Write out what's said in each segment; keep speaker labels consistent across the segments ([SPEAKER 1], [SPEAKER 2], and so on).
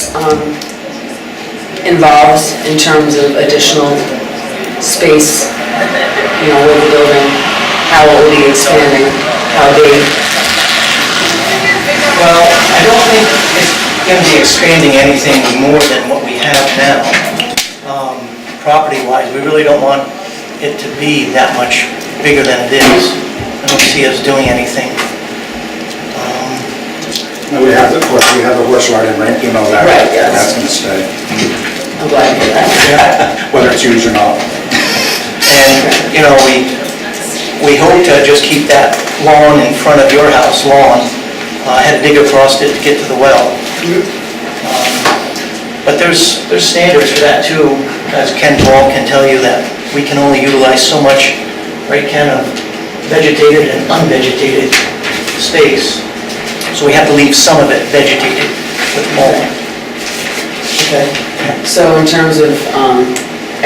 [SPEAKER 1] this um, involves in terms of additional space, you know, with the building, how it will be expanding, how big.
[SPEAKER 2] Well, I don't think it's going to be expanding anything more than what we have now, um, property-wise. We really don't want it to be that much bigger than it is. I don't see us doing anything. Um,
[SPEAKER 3] No, we have the, horse- we have the horse riding rink, you know that.
[SPEAKER 1] Right, yes.
[SPEAKER 3] That's gonna stay,
[SPEAKER 1] I'm glad to hear that.
[SPEAKER 3] whether it's used or not.
[SPEAKER 2] And, you know, we, we hope to just keep that lawn in front of your house lawn. Uh, I had to dig across it to get to the well. Um, But there's, there's standards for that too, as Ken Ball can tell you, that we can only utilize so much, right, Ken, of vegetated and unvegetated space. So we have to leave some of it vegetated with mulch. Okay?
[SPEAKER 1] So in terms of um,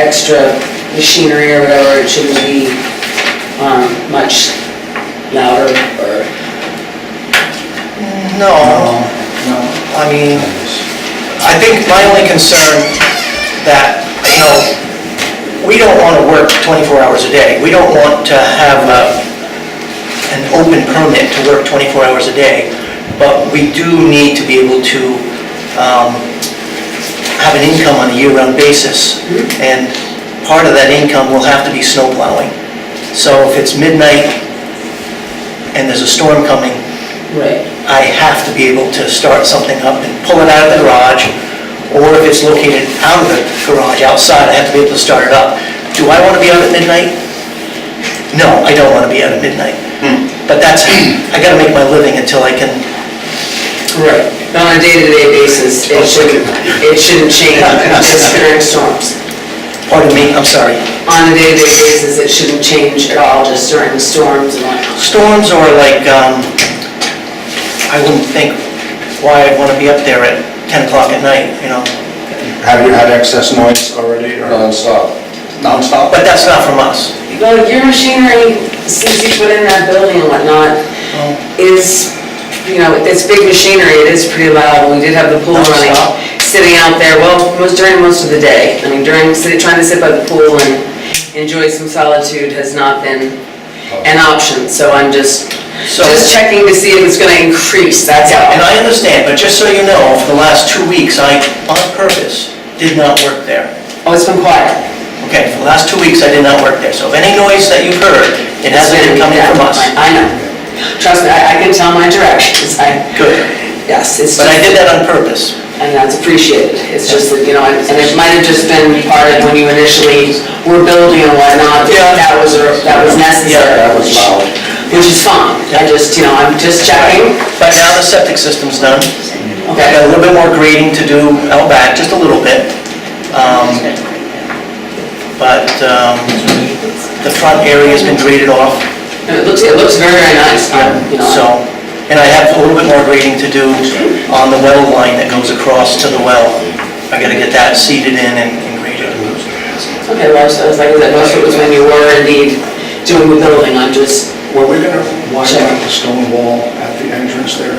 [SPEAKER 1] extra machinery or whatever, it shouldn't be um, much louder or,
[SPEAKER 2] No,
[SPEAKER 3] No.
[SPEAKER 2] I mean, I think my only concern that, you know, we don't want to work 24 hours a day. We don't want to have a- an open permit to work 24 hours a day, but we do need to be able to um, have an income on a year-round basis, and part of that income will have to be snow plowing. So if it's midnight and there's a storm coming,
[SPEAKER 1] right.
[SPEAKER 2] I have to be able to start something up and pull it out of the garage, or if it's located out of the garage, outside, I have to be able to start it up. Do I want to be out at midnight? No, I don't want to be out at midnight. But that's, I gotta make my living until I can,
[SPEAKER 1] Right, But on a day-to-day basis, it shouldn't, it shouldn't change just during storms.
[SPEAKER 2] pardon me, I'm sorry.
[SPEAKER 1] On a day-to-day basis, it shouldn't change at all just during storms and whatnot.
[SPEAKER 2] Storms are like, um, I wouldn't think why I'd want to be up there at 10 o'clock at night, you know?
[SPEAKER 3] Have you had excess noise already or? Non-stop. Non-stop?
[SPEAKER 2] But that's not from us.
[SPEAKER 1] Well, your machinery, since you put in that building and whatnot, Oh. is, you know, it's big machinery, it is pretty loud, and we did have the pool running,
[SPEAKER 2] Non-stop.
[SPEAKER 1] sitting out there, well, most, during most of the day. I mean, during, sit- trying to sit by the pool and enjoy some solitude has not been an option, so I'm just,
[SPEAKER 2] So-
[SPEAKER 1] just checking to see if it's gonna increase, that's
[SPEAKER 2] And
[SPEAKER 1] all.
[SPEAKER 2] I understand, but just so you know, for the last two weeks, I, on purpose, did not work there.
[SPEAKER 1] Oh, it's been quiet.
[SPEAKER 2] Okay, for the last two weeks, I did not work there, so if any noise that you've heard, it hasn't been coming
[SPEAKER 1] Yeah,
[SPEAKER 2] from us.
[SPEAKER 1] I know. Trust me, I, I can tell my directions, I,
[SPEAKER 2] Good,
[SPEAKER 1] yes, it's
[SPEAKER 2] but I
[SPEAKER 1] just,
[SPEAKER 2] did that on purpose.
[SPEAKER 1] and that's appreciated. It's just that, you know, and and it might have just been part of when you initially were building and whatnot,
[SPEAKER 2] Yeah.
[SPEAKER 1] that was, a- that was necessary.
[SPEAKER 3] Yeah, that was loud.
[SPEAKER 1] Which is fine, I just, you know, I'm just checking,
[SPEAKER 2] But now the septic system's done. I
[SPEAKER 1] okay?
[SPEAKER 2] got a little bit more grading to do out back, just a little bit. Um, But um, the front area's been graded off,
[SPEAKER 1] And It looks, it looks very, very nice, I'm, you know.
[SPEAKER 2] so, and I have a little bit more grading to do on the well line that goes across to the well. I gotta get that seeded in and and graded.
[SPEAKER 1] Okay, well, so I was like, that most of it was when you were indeed doing the building, I'm just,
[SPEAKER 3] Were we gonna widen out the stone wall at the entrance there?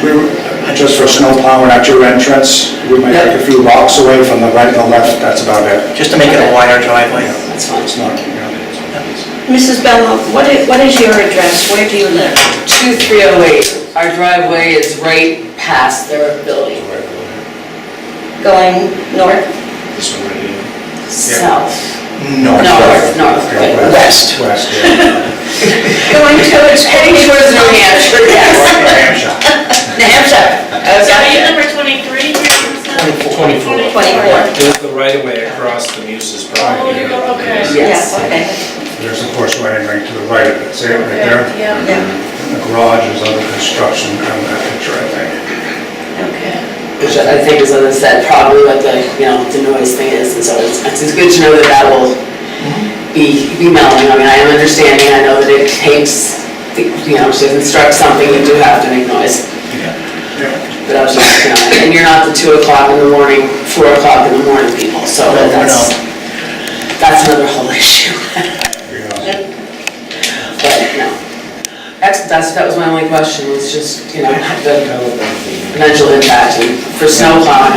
[SPEAKER 3] We were, just for snow plowing at your entrance, we might take a few blocks away from the right and the left, that's about it.
[SPEAKER 2] just to make it a wider driveway.
[SPEAKER 1] that's fine.
[SPEAKER 3] It's not, you know.
[SPEAKER 4] Mrs. Bello, what is, what is your address? Where do you live?
[SPEAKER 1] 2308, our driveway is right past their building,
[SPEAKER 4] Going north,
[SPEAKER 1] south,
[SPEAKER 2] No.
[SPEAKER 1] north, north, right.
[SPEAKER 2] West.
[SPEAKER 3] West, yeah.
[SPEAKER 4] going to its
[SPEAKER 1] Heading
[SPEAKER 4] heading
[SPEAKER 1] towards
[SPEAKER 4] towards
[SPEAKER 1] New Hampshire, yes.
[SPEAKER 3] New Hampshire.
[SPEAKER 1] New Hampshire.
[SPEAKER 5] Are you
[SPEAKER 1] Okay.
[SPEAKER 5] number 23?
[SPEAKER 6] Twenty-four.
[SPEAKER 4] 24.
[SPEAKER 6] It was the right of way across the Muses
[SPEAKER 5] Oh,
[SPEAKER 6] property.
[SPEAKER 5] you go, okay.
[SPEAKER 1] Yes.
[SPEAKER 4] Yeah, okay.
[SPEAKER 3] There's a horse riding rink to the right of it, see it right there?
[SPEAKER 5] Yeah.
[SPEAKER 4] Yeah,
[SPEAKER 3] The garage is under construction on that picture, I think.
[SPEAKER 4] okay.
[SPEAKER 1] Which I think is, as I said, probably what the, you know, the noise thing is, and so it's, it's good to know that that will be, be melting. I mean, I am understanding, I know that it takes, you know, to instruct something, you do have to make noise. But I was just, you know, and you're not the two o'clock in the morning, four o'clock in the morning people, so
[SPEAKER 2] No, we're
[SPEAKER 1] that's, that's another whole issue.
[SPEAKER 3] Yeah.
[SPEAKER 1] But, no. That's, that's, that was my only question, was just, you know, the potential impact and for snow plowing.